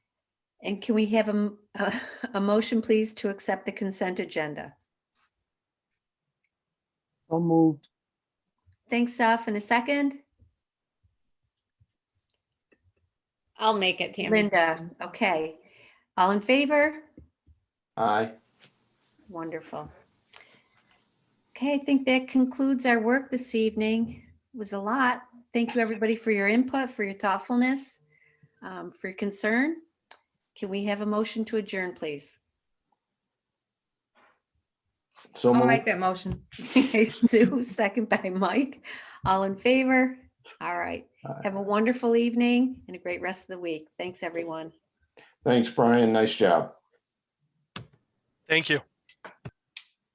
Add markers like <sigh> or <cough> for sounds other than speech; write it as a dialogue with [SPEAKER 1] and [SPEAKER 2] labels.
[SPEAKER 1] And can we have a, m- a- <laughs> a motion, please, to accept the consent agenda?
[SPEAKER 2] So moved.
[SPEAKER 1] Thanks, Saf, in a second.
[SPEAKER 3] I'll make it, Tammy.
[SPEAKER 1] Linda, okay. All in favor?
[SPEAKER 4] Aye.
[SPEAKER 1] Wonderful. Okay, I think that concludes our work this evening. It was a lot. Thank you, everybody, for your input, for your thoughtfulness, um, for your concern. Can we have a motion to adjourn, please?
[SPEAKER 4] So
[SPEAKER 5] I'll
[SPEAKER 4] moved.
[SPEAKER 5] make that motion.
[SPEAKER 1] <laughs> Sue, second by Mike. All in favor? All right.
[SPEAKER 4] Aye.
[SPEAKER 1] Have a wonderful evening and a great rest of the week. Thanks, everyone.
[SPEAKER 4] Thanks, Brian. Nice job.
[SPEAKER 6] Thank you.